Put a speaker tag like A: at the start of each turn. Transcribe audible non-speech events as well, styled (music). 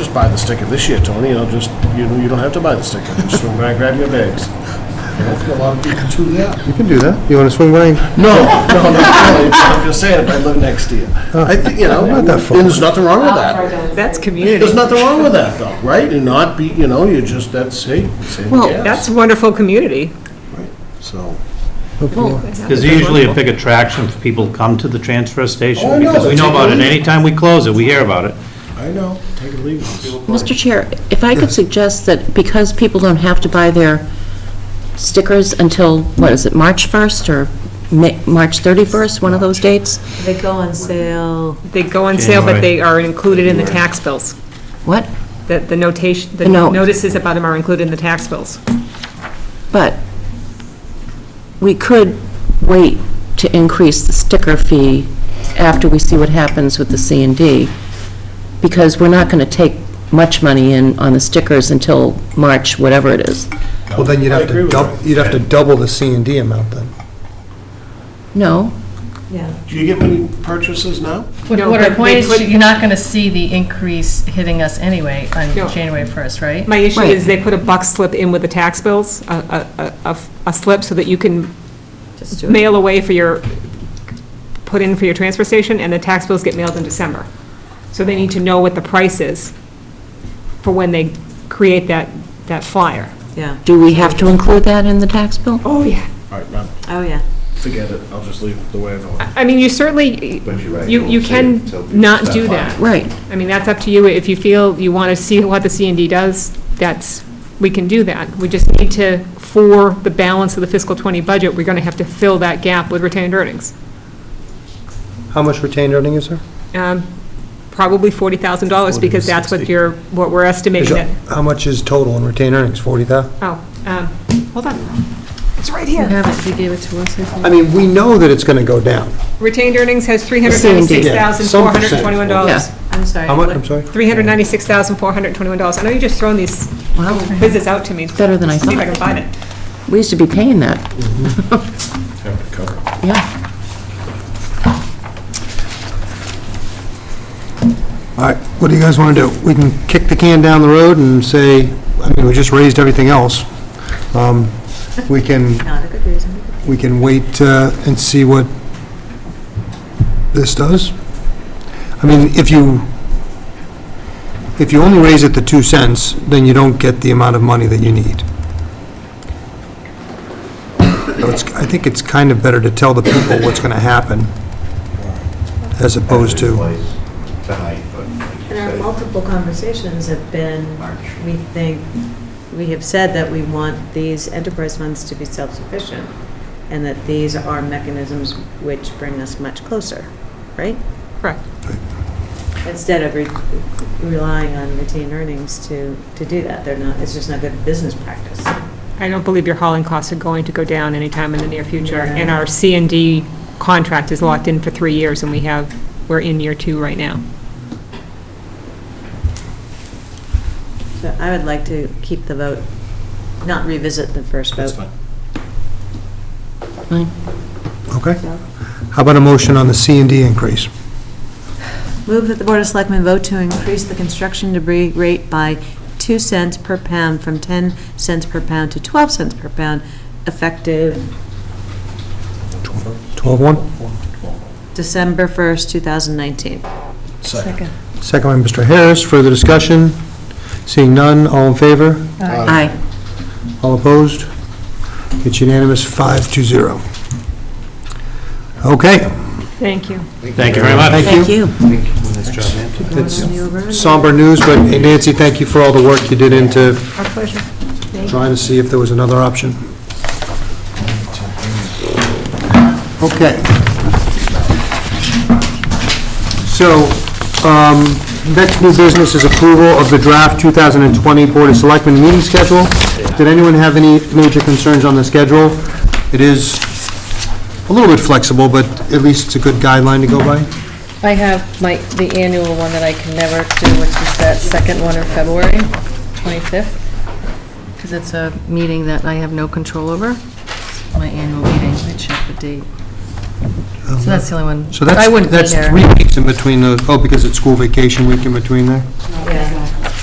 A: Just buy the sticker this year, Tony, I'll just, you know, you don't have to buy the sticker, just swing by and grab your bags. I don't think a lot of people do that.
B: You can do that. You want to swing by?
A: No, (laughs) no, not really, but I'm just saying, if I live next to you. I think, you know,
B: Not
A: and
B: that far.
A: there's nothing wrong with that.
C: That's
A: There's
C: community.
A: nothing wrong with that, though, right? And not be, you know, you just, that's, hey, save the
C: Well,
A: gas.
C: that's wonderful community.
A: So,
D: There's usually a big attraction for people to come to the transfer
A: Oh, I
D: station,
A: know,
D: because we
A: it's
D: know about it,
A: amazing.
D: anytime we close it, we hear about it.
A: I know, take it or leave it.
E: Mr. Chair, if I could suggest that because people don't have to buy their stickers until, what is it, March 1st or Ma- March 31st, one of those dates?
F: They go on sale.
C: They go on sale, but
D: January.
C: they are included in the tax bills.
E: What?
C: That the notation, the
E: No.
C: notices about them are included in the tax bills.
E: But we could wait to increase the sticker fee after we see what happens with the C and D, because we're not going to take much money in on the stickers until March, whatever it is.
B: Well, then you'd
A: I
B: have
A: agree
B: to,
A: with
B: doub-
A: that.
B: you'd have to double the C and D amount then.
E: No?
F: Yeah.
A: Do you get many purchases now?
G: What
C: No,
G: what
C: but
G: our
C: they
G: point is,
C: couldn't-
G: you're not going to see the increase hitting us anyway on
C: No.
G: January 1st, right?
C: My issue
E: Right.
C: is they put a buck slip in with the tax bills, a- a, a- a, a slip so that you can
F: Just do it.
C: mail away for your, put in for your transfer station, and the tax bills get mailed in December. So they need to know what the price is for when they create that, that flyer.
F: Yeah,
E: Do we have to include that in the tax bill?
C: Oh, yeah.
A: All right, now,
F: oh, yeah.
A: forget it, I'll just leave it the way I've always.
C: I mean, you certainly,
H: But you're right,
C: you,
H: we'll
C: you
H: see
C: can
H: it till we
C: not
H: start
C: do
H: buying.
C: that.
E: Right.
C: I mean, that's up to you. If you feel you want to see what the C and D does, that's, we can do that. We just need to, for the balance of the fiscal '20 budget, we're going to have to fill that gap with retained earnings.
B: How much retained earning is there?
C: Um, Probably $40,000, because that's what you're, what we're
B: Is
C: estimating
B: it-
C: that,
B: How much is total in retained earnings? Forty thousand?
C: oh, um, hold on. It's right here.
G: have it, you gave it to us, I think.
B: I mean, we know that it's going to go down.
C: Retained earnings has
B: Yeah, some percent.
C: $396,421.
E: Yeah.
F: I'm sorry.
B: How
G: Um,
B: much,
F: what-
B: I'm sorry?
C: $396,421. I know you're just throwing these
E: Wow.
C: quizzes out to me.
E: Better than I
C: See if I
E: thought.
C: can find it.
E: We used to be paying that, (laughs)
A: Have it Mm-hmm. covered.
E: yeah.
B: All right, what do you guys want to do? We can kick the can down the road and say, I mean, we just raised everything else. Um, We can,
F: Not a good reason.
B: we can wait uh, and see what this does. I mean, if you, if you only raise it to two cents, then you don't get the amount of money that you need. So it's, I think it's kind of better to tell the people what's going to happen as opposed to...
H: Place Tonight, but like you
F: And our
H: said,
F: multiple conversations have been, we think, we have said that we want these enterprise funds to be self-sufficient, and that these are mechanisms which bring us much closer, right?
C: Correct.
F: Instead of re- relying on retained earnings to, to do that, they're not, it's just not good business practice.
C: I don't believe your hauling costs are going to go down anytime in the near future.
F: Yeah.
C: And our C and D contract is locked in for three years, and we have, we're in year two right now.
F: So I would like to keep the vote, not revisit the first vote.
A: That's fine.
E: Fine.
B: Okay. How about a motion on the C and D increase?
F: Move that the Board of Selectmen vote to increase the construction debris rate by 2 cents per pound from 10 cents per pound to 12 cents per pound effective
B: 12-1?
F: December 1st, 2019.
A: Second.
B: Second by Mr. Harris. Further discussion? Seeing none, all in favor?
E: Aye.
B: All opposed? It's unanimous, 5 to 0. Okay,
C: Thank you.
D: Thank you very much.
B: thank
E: Thank
B: you.
E: you.
B: Somber news, but hey, Nancy, thank you for all the work you did into
C: Our pleasure.
B: trying to see if there was another option. Okay. So, um, next new business is approval of the draft 2020 Board of Selectmen meeting schedule. Did anyone have any major concerns on the schedule? It is a little bit flexible, but at least it's a good guideline to go by.
G: I have my, the annual one that I can never do, which is that second one in February, 25th, because it's a meeting that I have no control over, my annual meeting, I check the date. So that's the only one.
B: So
G: I
B: that's,
G: wouldn't be
B: that's
G: here.
B: three weeks in between those, oh, because it's school vacation week in between there?
F: Yeah.